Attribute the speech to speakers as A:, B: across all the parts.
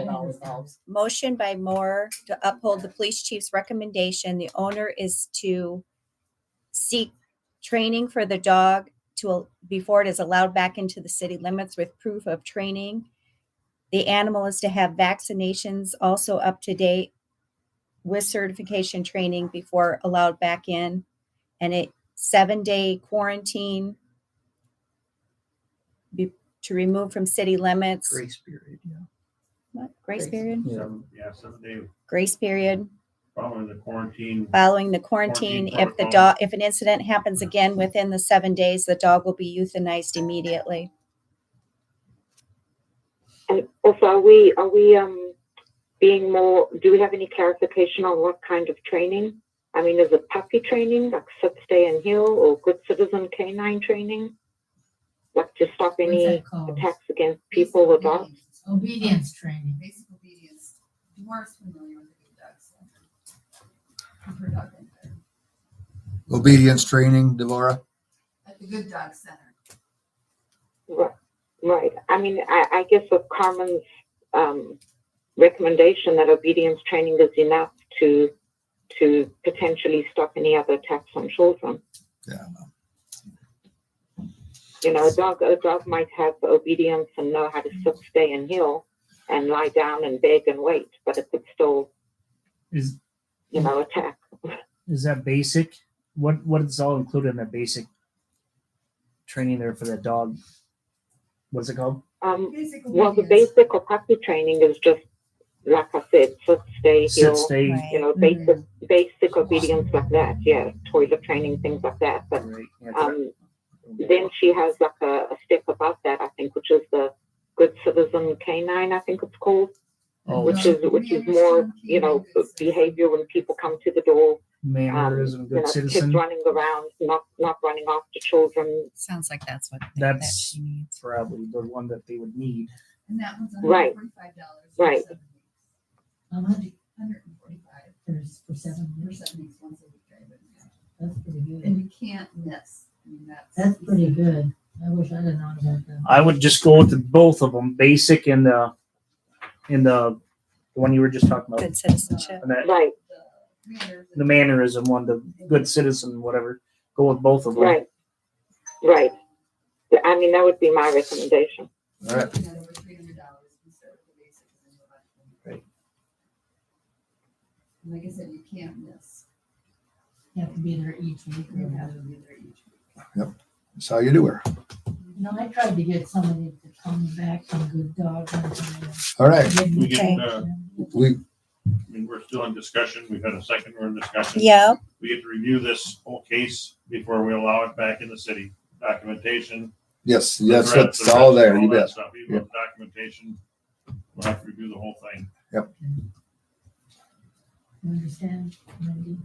A: It all revolves.
B: Motion by Moore to uphold the police chief's recommendation. The owner is to seek training for the dog to, before it is allowed back into the city limits with proof of training. The animal is to have vaccinations also up to date with certification training before allowed back in. And a seven-day quarantine be- to remove from city limits.
C: Grace period, yeah.
B: What? Grace
C: Grace.
B: period?
D: Seven, yeah, seven day
B: Grace period.
D: following the quarantine.
B: following the quarantine.
D: Quarantine
B: If the
D: protocol.
B: dog, if an incident happens again within the seven days, the dog will be euthanized immediately.
E: And also, are we, are we, um, being more, do we have any clarification on what kind of training? I mean, is it puppy training, like sit, stay and heel, or good citizen canine training? Like to stop
A: What's
E: any
A: that called?
E: attacks against people or dogs?
A: Obedience training.
F: basic obedience. Dwarf's familiar with the dog center. I've heard dog in there.
C: Obedience training, Devorah?
F: At the good dog center.
E: Right, right. I mean, I, I guess with Carmen's, um, recommendation that obedience training is enough to, to potentially stop any other attacks on children.
C: Yeah.
E: you know, a dog a dog might have obedience and know how to sit, stay, and heel, and lie down and beg and wait, but it could still,
G: Is
E: you know, attack.
G: is that basic? What what is all included in that basic training there for that dog? What's it called?
E: Um,
F: Basic
E: well, the
F: obedience.
E: basic or puppy training is just like I said, sit, stay, heel,
G: Sit, stay,
E: you
B: Right.
E: know, basic basic obedience like that. Yeah, toilet training, things like that. But
G: right? yeah,
E: um, then she has like a, a step above that, I think, which is the good citizen canine. I think it's called.
G: oh,
E: which
G: it's
E: is which is more you know behavior when people come to the door
G: mannerism,
E: um, you
G: good
E: know,
G: citizen.
E: kids running around not not running after children
H: Sounds like that's what that
G: That's-
H: she needs.
G: Probably the one that they would need.
F: And that one's
E: Right.
F: hundred forty-five dollars.
E: Right.
A: How much
F: Hundred and forty-five,
A: for, for seven
F: or
A: years?
F: seven weeks once a week, I would imagine.
A: That's pretty good.
F: And you can't miss. I mean, that's.
A: That's pretty good. I wish I'd have known about that.
G: I would just go with the, both of them, basic and the and the the one you were just talking about,
B: Good citizenship.
G: and that,
E: right
F: The manners
G: the
F: and-
G: mannerism one, the good citizen, whatever. Go with both of them.
E: right right i mean that would be my recommendation
C: All right.
F: Looking at over three hundred dollars instead of the basic. and then the left one.
C: Right.
F: And Like I said, you can't miss.
A: You have to be there each week.
I: Mm-hmm.
F: You have to be there each week.
C: That's how you do her.
A: No, I tried to get somebody to come back from Good Dog. and something else.
C: All right,
A: Didn't
D: We
B: Okay.
D: get, uh,
C: we,
D: I mean, we're still in discussion. We've had a second, we're in discussion.
B: Yeah,
D: We get to review this whole case before we allow it back in the city. Documentation.
C: yes,
D: the
C: yes,
D: threats,
C: that's
D: the
C: all
D: risks,
C: there, you
D: that
C: bet.
D: stuff, Even with documentation, we'll have to review the whole thing.
A: You understand? Mindy?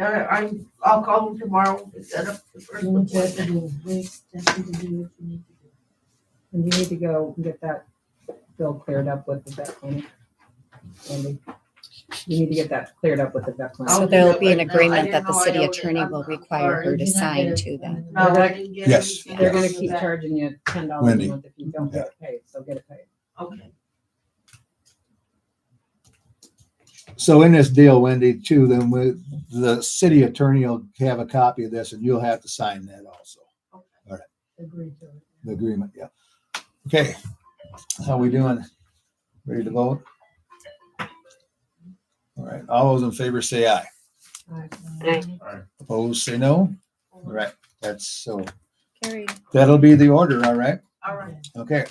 J: All right, I'm, I'll call them tomorrow to set up the first
A: Do what you have
J: appointment.
A: to do. Just have to do what you need to do.
I: And you need to go and get that bill cleared up with the vet clinic. Andy, you need to get that cleared up with the vet clinic.
B: so
J: I'll
B: there'll
J: do
B: be
J: it right
B: an
J: now. I
B: agreement
J: didn't
B: that the
J: know I
B: city
J: owed it.
B: attorney
J: I'm-
B: will
J: I'm
B: require
J: sorry.
B: her
I: Did
B: to
I: you not
B: sign
I: get a-
B: to them.
J: No, I didn't get
C: Yes.
J: anything.
I: They're gonna
J: else
I: keep
J: for that.
I: charging you ten dollars
C: Wendy.
I: a month if you don't get it paid, so get it paid.
J: Okay.
C: So in this deal, Wendy, too, then with the city attorney will have a copy of this and you'll have to sign that also,
A: Agree to it.
C: the agreement, yeah. Okay, how we doing? Ready to vote? All right, all those in favor say aye. Opposed, say no. All right, that's so,
B: Carried.
C: that'll be the order, all right?
J: All right,
C: Okay.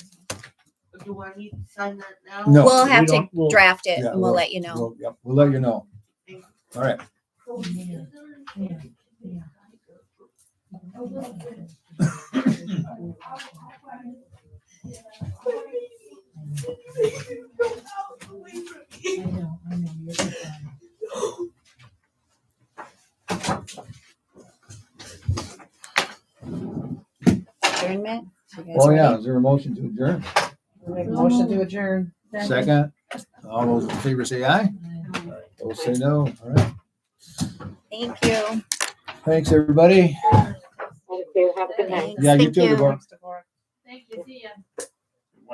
J: do I need to sign that now?
C: No.
B: We'll have
G: we
B: to
G: don't- we'll-
B: draft it
C: Yeah,
B: and we'll let you know.
C: We'll- Yep, we'll let you know. All right,
A: Yeah, yeah, yeah. I know, I know, you're good.
B: Adjournment? You guys
C: oh
B: ready?
C: yeah, is there a motion to adjourn?
I: Make a motion to adjourn.
C: Second, all those in favor say aye, those say no, all right.
B: Thank you.
C: Thanks, everybody.
E: thank you have a good night
B: Thanks.
C: Yeah, you
B: Thank
C: too, Deborah.
F: Thank you, see ya.